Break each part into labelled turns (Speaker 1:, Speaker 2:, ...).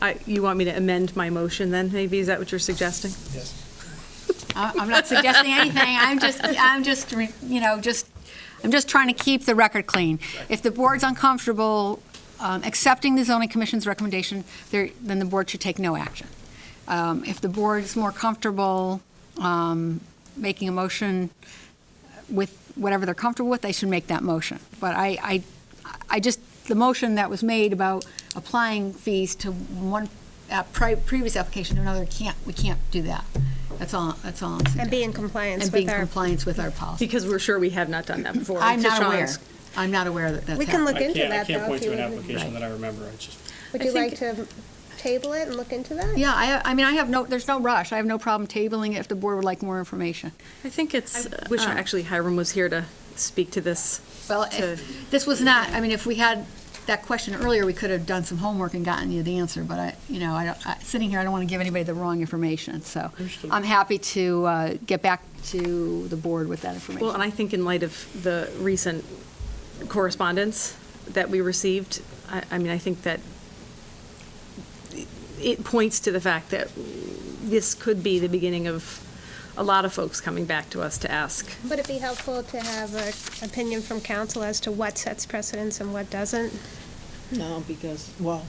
Speaker 1: I- You want me to amend my motion then, maybe? Is that what you're suggesting?
Speaker 2: I- I'm not suggesting anything. I'm just, I'm just, re- you know, just, I'm just trying to keep the record clean. If the board's uncomfortable um, accepting the zoning commission's recommendation, there, then the board should take no action. Um, If the board's more comfortable um, making a motion with whatever they're comfortable with, they should make that motion. But I, I, I just, the motion that was made about applying fees to one uh, pri- previous application to another, can't, we can't do that. That's all, that's all I'm suggesting.
Speaker 3: And be in compliance
Speaker 2: And
Speaker 3: with
Speaker 2: be in
Speaker 3: our-
Speaker 2: compliance with our policy.
Speaker 1: Because we're sure we have not done that before.
Speaker 2: I'm
Speaker 1: to
Speaker 2: not aware.
Speaker 1: Sean's-
Speaker 2: I'm not aware that that's
Speaker 3: We can
Speaker 2: happened.
Speaker 3: look
Speaker 4: I
Speaker 3: into
Speaker 4: can't, I
Speaker 3: that,
Speaker 4: can't
Speaker 3: though, if
Speaker 4: point
Speaker 3: you
Speaker 4: to an
Speaker 3: would.
Speaker 4: application
Speaker 2: Right.
Speaker 4: that I remember, I just,
Speaker 3: Would
Speaker 1: I
Speaker 3: you like
Speaker 1: think-
Speaker 3: to table it and look into that?
Speaker 2: Yeah, I, I mean, I have no, there's no rush. I have no problem tabling it if the board would like more information.
Speaker 1: I think it's,
Speaker 2: I wish
Speaker 1: uh,
Speaker 2: I-
Speaker 1: actually Hiram was here to speak to this.
Speaker 2: Well,
Speaker 1: to-
Speaker 2: if, this was not, I mean, if we had that question earlier, we could have done some homework and gotten you the answer, but I, you know, I don't, I, sitting here, I don't want to give anybody the wrong information, so
Speaker 4: Understood.
Speaker 2: I'm happy to, uh, get back to the board with that information.
Speaker 1: Well, and I think in light of the recent correspondence that we received, I, I mean, I think that it points to the fact that this could be the beginning of a lot of folks coming back to us to ask.
Speaker 3: Would it be helpful to have an opinion from council as to what sets precedence and what doesn't?
Speaker 5: No, because, well,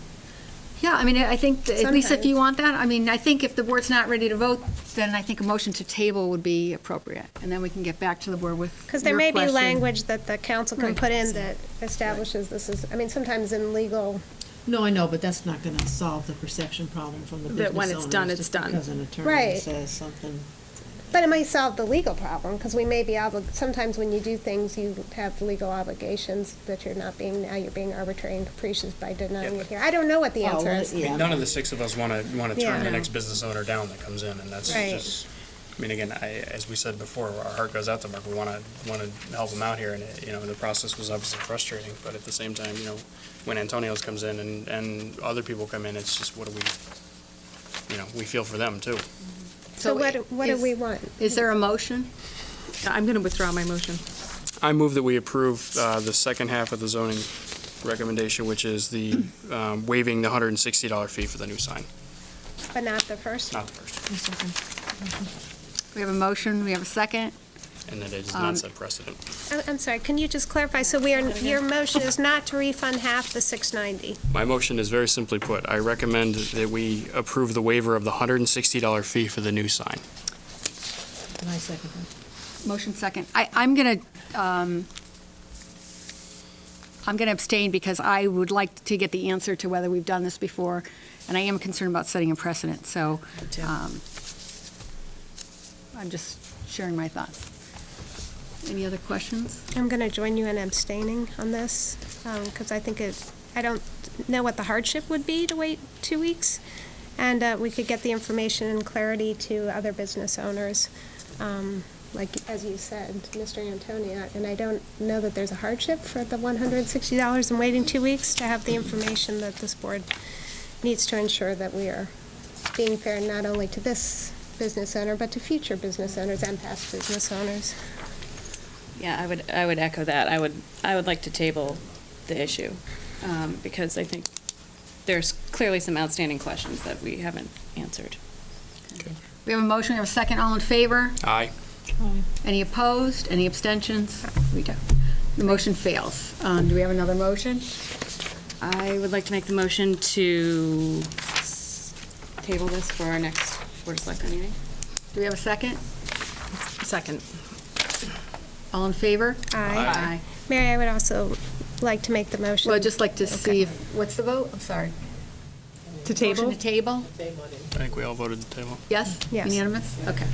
Speaker 2: Yeah, I mean, I think, at least if you want
Speaker 3: Sometimes.
Speaker 2: that, I mean, I think if the board's not ready to vote, then I think a motion to table would be appropriate, and then we can get back to the board with your question.
Speaker 3: Because there may be language that the council can
Speaker 2: Right.
Speaker 3: put in that establishes this is, I mean, sometimes in legal,
Speaker 5: no, I know, but that's not gonna solve the perception problem from the business
Speaker 1: That
Speaker 5: owners.
Speaker 1: when it's done, it's done.
Speaker 5: Just because an attorney
Speaker 3: Right.
Speaker 5: says something.
Speaker 3: but it might solve the legal problem, because we may be obli, sometimes when you do things, you have legal obligations that you're not being, now you're being arbitrary and capricious by denying it here. I don't know what the
Speaker 5: Oh,
Speaker 3: answer
Speaker 5: well,
Speaker 3: is.
Speaker 5: yeah.
Speaker 4: I mean, none of the six of us want to, want to
Speaker 3: Yeah.
Speaker 4: turn the
Speaker 3: No.
Speaker 4: next business owner down that comes in, and that's
Speaker 3: Right.
Speaker 4: just, I mean, again, I, as we said before, our heart goes out to Mark, we want to, want to help him out here, and, it- you know, the process was obviously frustrating, but at the same time, you know, when Antonio's comes in and, and other people come in, it's just, what do we, you know, we feel for them, too.
Speaker 3: So what, do- what do
Speaker 2: is-
Speaker 3: we want?
Speaker 2: Is there a motion?
Speaker 1: I'm going to withdraw my motion.
Speaker 4: I move that we approve uh, the second half of the zoning recommendation, which is the um, waiving the $160 fee for the new sign,
Speaker 3: But not the first?
Speaker 4: not the first,
Speaker 2: We have a motion, we have a second.
Speaker 4: and that it is
Speaker 2: Um,
Speaker 4: not set precedent.
Speaker 3: I- Oh, I'm sorry, can you just clarify? So we are, your motion is not to refund half the 690?
Speaker 4: My motion is very simply put, I recommend that we approve the waiver of the $160 fee for the new sign.
Speaker 5: And I second that.
Speaker 2: Motion second. I, I'm going to, um, I'm going to abstain because I would like to get the answer to whether we've done this before, and I am concerned about setting a precedent, so,
Speaker 1: too.
Speaker 2: um, I'm just sharing my thoughts. Any other questions?
Speaker 3: I'm going to join you in abstaining on this, because I think it, I don't know what the hardship would be to wait two weeks, and uh, we could get the information and clarity to other business owners, um, like, as you said, Mr. Antonia, and I don't know that there's a hardship for the $160 and waiting two weeks to have the information that this board needs to ensure that we are being fair not only to this business owner, but to future business owners and past business owners.
Speaker 6: Yeah, I would, I would echo that. I would, I would like to table the issue, um, because I think there's clearly some outstanding questions that we haven't answered.
Speaker 2: We have a motion, we have a second. All in favor?
Speaker 4: Aye.
Speaker 2: Any opposed? Any abstentions? We don't. The motion fails. Um, Do we have another motion?
Speaker 6: I would like to make the motion to s- table this for our next Board of Selectmen meeting.
Speaker 2: Do we have a second?
Speaker 1: Second.
Speaker 2: All in favor?
Speaker 3: Aye. Mary, I would also like to make the motion.
Speaker 2: Well, I'd just like to see if, what's the vote? I'm sorry.
Speaker 1: To
Speaker 2: Motion
Speaker 1: table?
Speaker 2: to table?
Speaker 4: I think we all voted the table.
Speaker 2: Yes?
Speaker 3: Yes.
Speaker 2: Unanimous? Okay.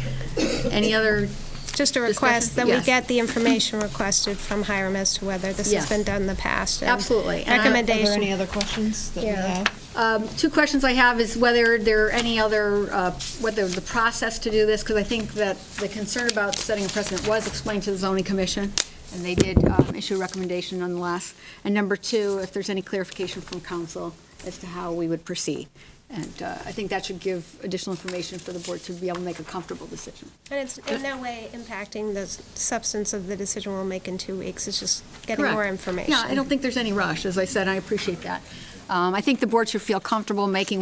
Speaker 2: Any other,
Speaker 3: Just a request
Speaker 2: discussion?
Speaker 3: that we
Speaker 2: Yes.
Speaker 3: get the information requested from Hiram as to whether this has
Speaker 2: Yes.
Speaker 3: been done in the past. and
Speaker 2: Absolutely. And I-
Speaker 5: Are there any
Speaker 3: Recommendation.
Speaker 5: other questions that we
Speaker 3: Yeah.
Speaker 5: have?
Speaker 2: um, two questions I have is whether there are any other, uh, whether the process to do this, because I think that the concern about setting a precedent was explained to the zoning commission, and they did um, issue a recommendation nonetheless. And number two, if there's any clarification from council as to how we would proceed. And uh, I think that should give additional information for the board to be able to make a comfortable decision.
Speaker 3: And it's in no way impacting the s- substance of the decision we'll make in two weeks. It's just getting
Speaker 2: Correct.
Speaker 3: more information.
Speaker 2: Yeah, I don't think there's any rush, as I said, I appreciate that. Um, I think the board should feel comfortable making